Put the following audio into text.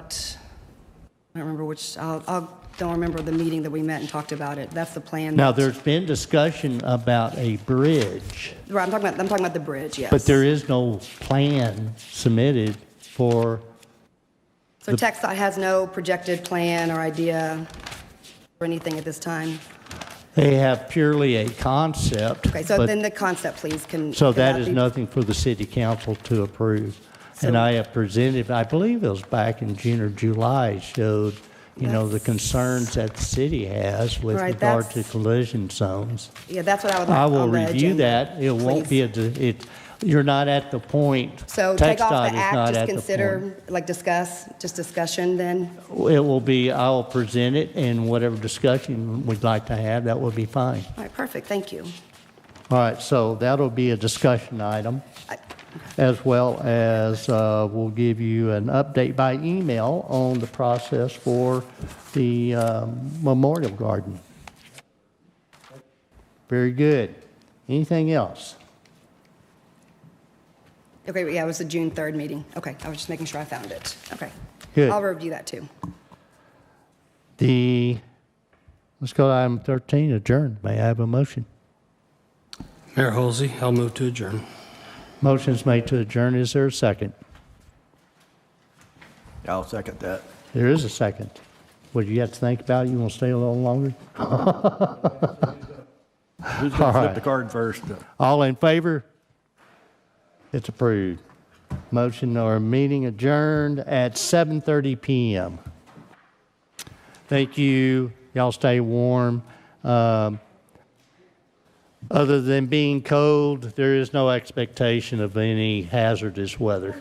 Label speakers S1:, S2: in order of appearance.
S1: about- I don't remember which, I'll, I'll, don't remember the meeting that we met and talked about it. That's the plan.
S2: Now,
S1: that-
S2: there's been discussion about a bridge,
S1: Right, I'm talking about, I'm talking about the bridge, yes.
S2: but there is no plan submitted for,
S1: So TechStot has no projected plan or idea or anything at this time.
S2: they have purely a concept.
S1: Okay, so
S2: but-
S1: then the concept, please, can.
S2: So
S1: can
S2: that is
S1: be-
S2: nothing for the city council to approve. And
S1: So-
S2: I have presented, I believe it was back in June or July, showed, you know, the concerns that the city has with
S1: Right,
S2: regard to
S1: that's-
S2: collision zones.
S1: Yeah, that's what I would like.
S2: I will
S1: on the
S2: review
S1: agenda,
S2: that. It won't
S1: please.
S2: be, a de- it, you're not at the point.
S1: So take
S2: TxDOT
S1: off
S2: is
S1: the act,
S2: not at
S1: just
S2: the point.
S1: consider, like discuss, just discussion then.
S2: It will be, I will present it and whatever discussion we'd like to have, that will be fine.
S1: All right, perfect, thank you.
S2: All right, so that'll be a discussion item,
S1: I-
S2: as well as uh, we'll give you an update by email on the process for the um, Memorial Garden. Very good. Anything else?
S1: Okay, yeah, it was the June 3rd meeting. Okay, I was just making sure I found it. Okay.
S2: Good.
S1: I'll review that too.
S2: The, let's go to item 13, adjourn. May I have a motion?
S3: Mayor Halsey, I'll move to adjourn.
S2: Motion's made to adjourn. Is there a second?
S4: I'll second that.
S2: There is a second. Would you have to think about it? You want to stay a little longer?
S4: Who's going to
S2: All
S4: flip
S2: right.
S4: the card first?
S2: All in favor? It's approved. Motion or meeting adjourned at 7:30 PM. Thank you. Y'all stay warm. Um, Other than being cold, there is no expectation of any hazardous weather.